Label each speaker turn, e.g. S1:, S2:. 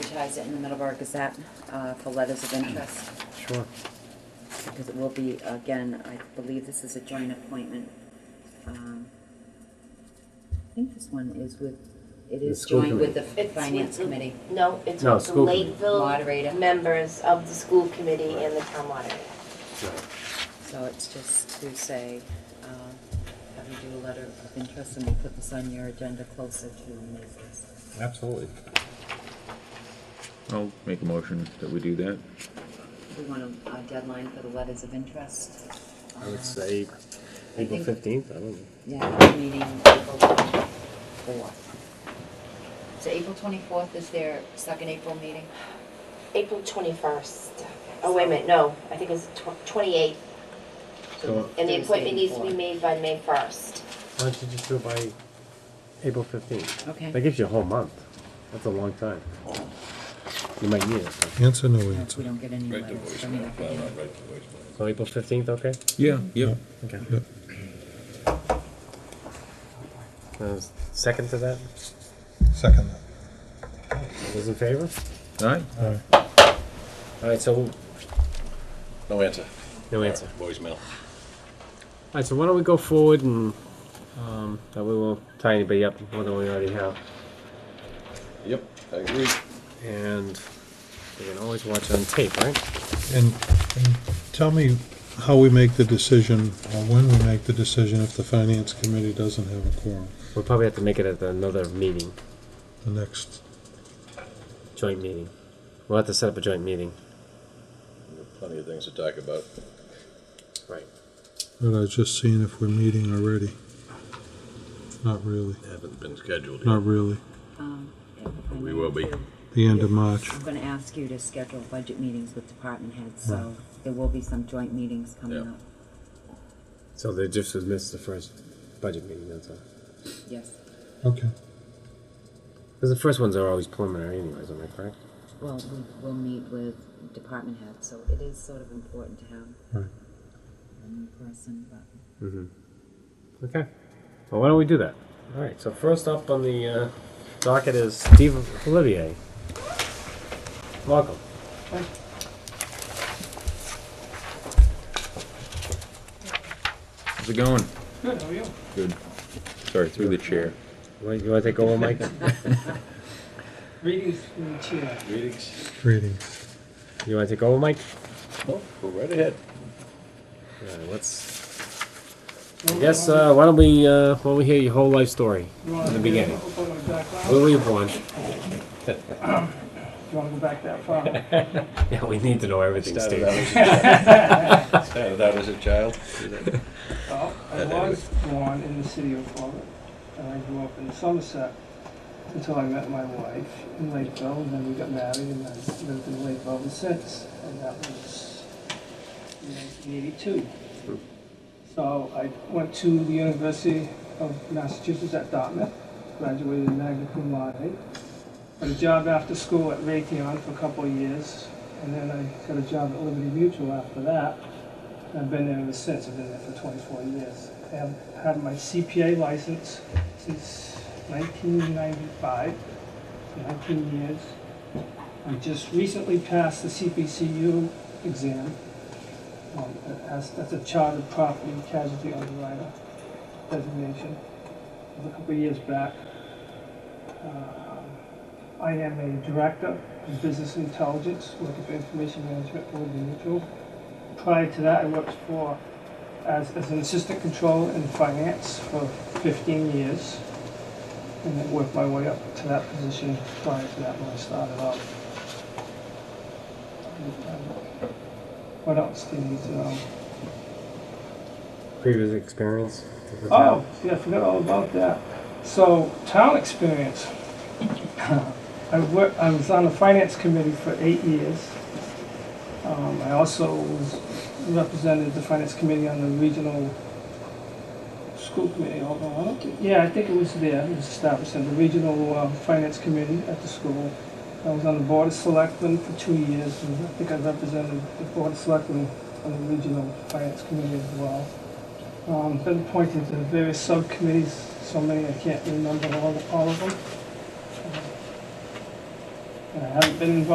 S1: advertise it in the Middleborough Gazette uh, for letters of interest,
S2: Sure.
S1: because it will be, again, I believe this is a joint appointment. Um, I think this one is with, it
S2: The
S1: is
S2: school
S1: joined with the
S3: It's
S1: Finance
S3: with the-
S1: Committee.
S3: No, it's
S2: No,
S3: with the
S2: school committee.
S3: Lakeville
S1: Moderator.
S3: members of the school committee and the town moderator.
S1: So it's just to say, um, have you do a letter of interest, and we'll put this on your agenda closer to Macy's.
S4: Absolutely.
S5: I'll make a motion that we do that.
S1: We want a uh, deadline for the letters of interest.
S2: I would
S1: Uh,
S2: say April
S1: think-
S2: fifteenth, I don't know.
S1: Yeah, our meeting April twenty-fourth. So April twenty-fourth is their second April meeting?
S3: April 21st. Oh, wait a minute, no, I think it's tw- 28th.
S5: So-
S3: And the
S1: Thursday
S3: appointment needs to be
S1: before.
S3: made by May 1st.
S2: Why don't you just do it by April fifteenth?
S1: Okay.
S2: That gives you a whole month. That's a long time. You might need it.
S4: Answer, no
S1: Uh, If we
S4: answer.
S1: don't get any
S6: Right to
S1: letters, I mean,
S6: voicemail,
S1: I
S6: well,
S1: can-
S6: not right to voicemail.
S2: So April fifteenth, okay?
S5: Yeah, yeah.
S2: Okay.
S4: Yeah.
S2: Uh, Second to that?
S4: Second.
S2: All Those in favor?
S5: All right.
S2: All right, so,
S6: No answer.
S2: no answer.
S6: Voicemail.
S2: All right, so why don't we go forward and, um, that way we won't tie anybody up more than we already have.
S6: Yep, I agree.
S2: And we can always watch on tape, right?
S4: And, and tell me how we make the decision, or when we make the decision if the finance committee doesn't have a quorum,
S2: We'll probably have to make it at another meeting,
S4: the next.
S2: joint meeting. We'll have to set up a joint meeting.
S6: Plenty of things to talk about.
S2: Right.
S4: But I was just seeing if we're meeting already. Not really,
S6: Haven't been scheduled
S4: not
S6: yet.
S4: really.
S1: um, if I
S6: We
S1: may,
S6: will be.
S1: too,
S4: The end of March.
S1: I'm gonna ask you to schedule budget meetings with department heads, so
S4: Right.
S1: there will be some joint meetings coming
S6: Yeah.
S1: up.
S2: So they just missed the first budget meeting, that's all.
S1: Yes,
S4: Okay.
S2: Because the first ones are always preliminary anyways, am I correct?
S1: well, we will meet with department heads, so it is sort of important to have
S4: Right.
S1: a new person, but.
S2: Okay. Well, why don't we do that? All right, so first up on the uh, docket is Steve Olivier. Welcome.
S5: How's it going? Good. How are you? Good. Sorry, through the chair.
S2: Wait, You want to take over, Mike?
S7: Greetings from the chair.
S6: Greetings.
S4: Greetings.
S2: You want to take over, Mike?
S6: Well, Oh, go right ahead.
S2: All right, let's... Yes, uh, why don't we, uh, why don't we hear your whole life story?
S7: You wanna
S2: in the
S7: do-
S2: beginning.
S7: open my background?
S2: Where were you born?
S7: You want to go back that far?
S2: Yeah, we need to know everything,
S6: Started
S2: Steve.
S6: out as a- started out as a child.
S7: Well, I was born in the city of Florida, and I grew up in Somerset until I met my wife in Lakeville, and then we got married, and I've lived in Lakeville ever since, and that was in 1982. So I went to the University of Massachusetts at Dartmouth, graduated magna cum laude, got a job after school at Raytheon for a couple of years, and then I got a job at Liberty Mutual after that. I've been there ever since. I've been there for 24 years. I have had my CPA license since 1995, so 19 years. I just recently passed the CPCU exam. Um, that has- that's a chartered property casualty underwriter designation. It was a couple of years back. Um, I am a director of business intelligence, working for information management for Liberty Mutual. Prior to that, I worked for, as, as an assistant controller in finance for 15 years. And then worked my way up to that position prior to that when I started out. um, What else do you need to know?
S2: Previous experience? with the
S7: Oh,
S2: town?
S7: yeah, I forgot all about that. So, town experience. I worked, I was on the finance committee for eight years. Um, I also was, represented the finance committee on the regional school committee, although I don't think, yeah, I think it was there, it was established, in the regional, uh, finance committee at the school. I was on the board of selectmen for two years, and I think I represented the board of selectmen on the regional finance committee as well. Um, been appointed to various subcommittees, so many I can't remember all, all of them. Um, and I haven't been involved